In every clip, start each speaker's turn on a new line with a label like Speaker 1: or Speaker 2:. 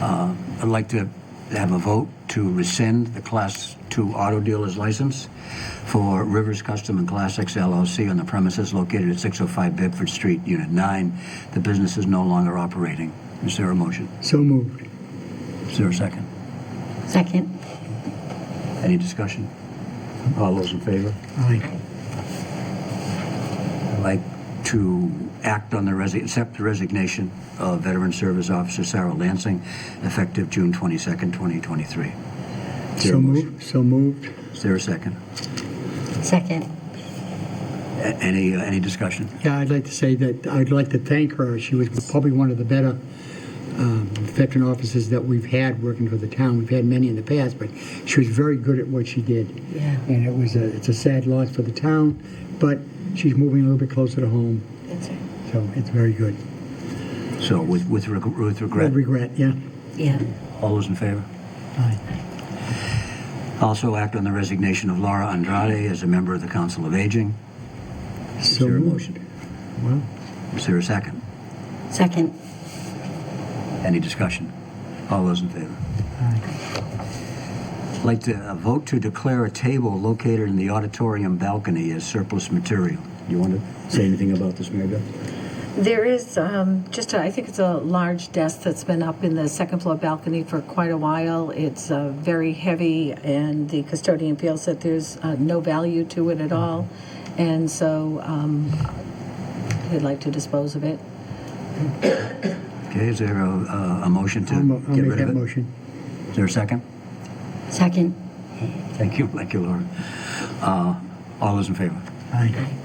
Speaker 1: Uh, I'd like to have a vote to rescind the Class 2 auto dealer's license for Rivers Custom and Classics LLC on the premises located at 605 Bedford Street, Unit 9. The business is no longer operating. Is there a motion?
Speaker 2: So moved.
Speaker 1: Is there a second?
Speaker 3: Second.
Speaker 1: Any discussion? All those in favor?
Speaker 2: Aye.
Speaker 1: I'd like to act on the, resi- accept the resignation of Veteran Service Officer Sarah Lansing, effective June 22nd, 2023. Is there a
Speaker 2: So
Speaker 1: motion?
Speaker 2: moved. So moved.
Speaker 1: Is there a second?
Speaker 3: Second.
Speaker 1: A- Any, uh, any discussion?
Speaker 2: Yeah, I'd like to say that I'd like to thank her. She was probably one of the better um, veteran officers that we've had working for the town. We've had many in the past, but she was very good at what she did.
Speaker 3: Yeah.
Speaker 2: And it was a, it's a sad loss for the town, but she's moving a little bit closer to home,
Speaker 3: That's right.
Speaker 2: so it's very good.
Speaker 1: So with, with reg- with regret,
Speaker 2: With regret, yeah.
Speaker 3: Yeah.
Speaker 1: all those in favor?
Speaker 2: Aye.
Speaker 1: Also act on the resignation of Laura Andrade as a member of the Council of Aging. Is
Speaker 2: So
Speaker 1: there a
Speaker 2: moved.
Speaker 1: motion?
Speaker 2: Well,
Speaker 1: Is there a second?
Speaker 3: Second.
Speaker 1: Any discussion? All those in favor?
Speaker 2: aye.
Speaker 1: I'd like to uh, vote to declare a table located in the auditorium balcony as surplus material. You want to say anything about this, Mary Beth?
Speaker 4: There is um, just, a, I think it's a large desk that's been up in the second floor balcony for quite a while. It's uh, very heavy, and the custodian feels that there's uh, no value to it at all, and so um, they'd like to dispose of it.
Speaker 1: Okay, is there a, uh, a, a motion to
Speaker 2: I'll mo- I'll
Speaker 1: get
Speaker 2: make
Speaker 1: rid
Speaker 2: that
Speaker 1: of it?
Speaker 2: motion.
Speaker 1: Is there a second?
Speaker 3: Second.
Speaker 1: Thank you, thank you, Laura. Uh, all those in favor?
Speaker 2: Aye.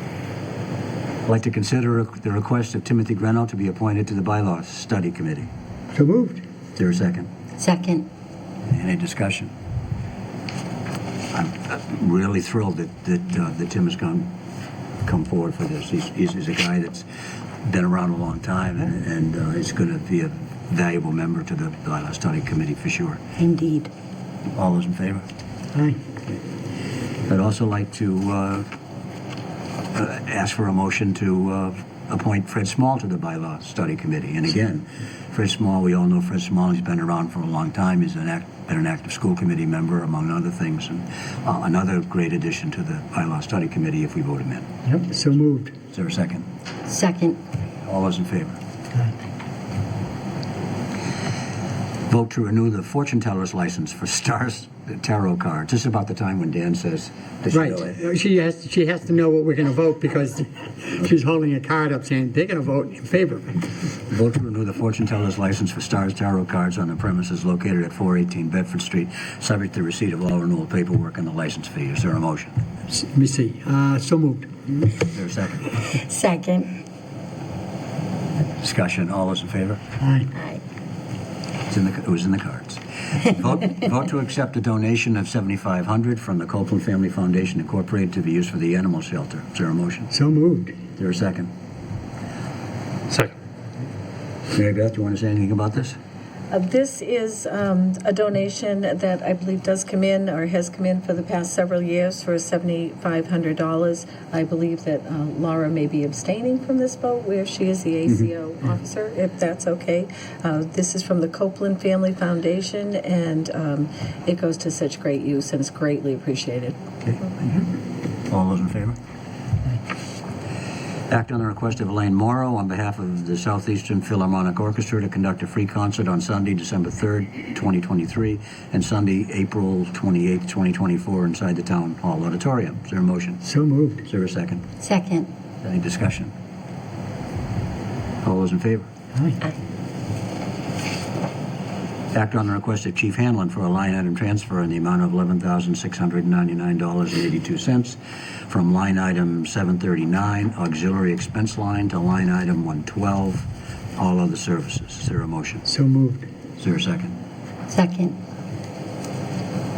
Speaker 1: I'd like to consider the request of Timothy Greno to be appointed to the Bylaws Study Committee.
Speaker 2: So moved.
Speaker 1: Is there a second?
Speaker 3: Second.
Speaker 1: Any discussion? I'm uh, really thrilled that, that, uh, that Tim has come, come forward for this. He's, he's he's a guy that's been around a long time and, and uh, he's going to be a valuable member to the Bylaw Study Committee for sure.
Speaker 3: Indeed.
Speaker 1: All those in favor?
Speaker 2: Aye.
Speaker 1: I'd also like to uh, uh, ask for a motion to uh, appoint Fred Small to the Bylaw Study Committee. And again, Fred Small, we all know Fred Small, he's been around for a long time, he's an act, been an active school committee member, among other things, and uh, another great addition to the Bylaw Study Committee if we vote him in.
Speaker 2: Yep, so moved.
Speaker 1: Is there a second?
Speaker 3: Second.
Speaker 1: All those in favor?
Speaker 2: Aye.
Speaker 1: Vote to renew the fortune teller's license for Stars Tarot cards. This is about the time when Dan says they should do it.
Speaker 2: Right. Uh, She has, she has to know what we're going to vote because she's holding a card up saying they're going to vote in favor.
Speaker 1: Vote to renew the fortune teller's license for Stars Tarot Cards on the premises located at 418 Bedford Street, subject to receipt of all renewal paperwork and the license fee. Is there a motion?
Speaker 2: S- Let me see. Uh, So moved.
Speaker 1: Is there a second?
Speaker 3: Second.
Speaker 1: Discussion, all those in favor?
Speaker 2: Aye.
Speaker 3: Aye.
Speaker 1: It's in the, it was in the cards. Vote, vote to accept a donation of 7500 from the Copeland Family Foundation Incorporated to be used for the animal shelter. Is there a motion?
Speaker 2: So moved.
Speaker 1: Is there a second?
Speaker 5: Second.
Speaker 1: Mary Beth, do you want to say anything about this?
Speaker 4: Uh, This is um, a donation that I believe does come in or has come in for the past several years for $7,500. I believe that uh, Laura may be abstaining from this vote where she is the ACO officer, if that's okay. Uh, This is from the Copeland Family Foundation, and um, it goes to such great use and is greatly appreciated.
Speaker 1: Okay. All those in favor? Act on the request of Elaine Morrow on behalf of the Southeastern Philharmonic Orchestra to conduct a free concert on Sunday, December 3rd, 2023, and Sunday, April 28th, 2024, inside the Town Hall Auditorium. Is there a motion?
Speaker 2: So moved.
Speaker 1: Is there a second?
Speaker 3: Second.
Speaker 1: Any discussion? All those in favor?
Speaker 2: Aye.
Speaker 3: Aye.
Speaker 1: Act on the request of Chief Hanlon for a line item transfer in the amount of $11,699.82 from line item 739, auxiliary expense line, to line item 112, all other services. Is there a motion?
Speaker 2: So moved.
Speaker 1: Is there a second?
Speaker 3: Second.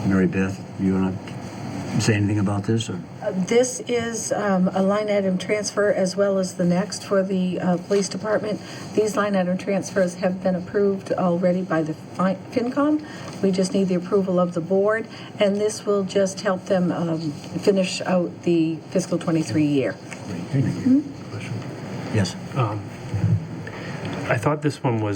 Speaker 1: Mary Beth, you want to say anything about this, or?
Speaker 4: This is um, a line item transfer as well as the next for the uh, police department. These line item transfers have been approved already by the Fin- FinCom. We just need the approval of the board, and this will just help them um, finish out the fiscal '23 year.
Speaker 1: Yes?
Speaker 5: I thought this one was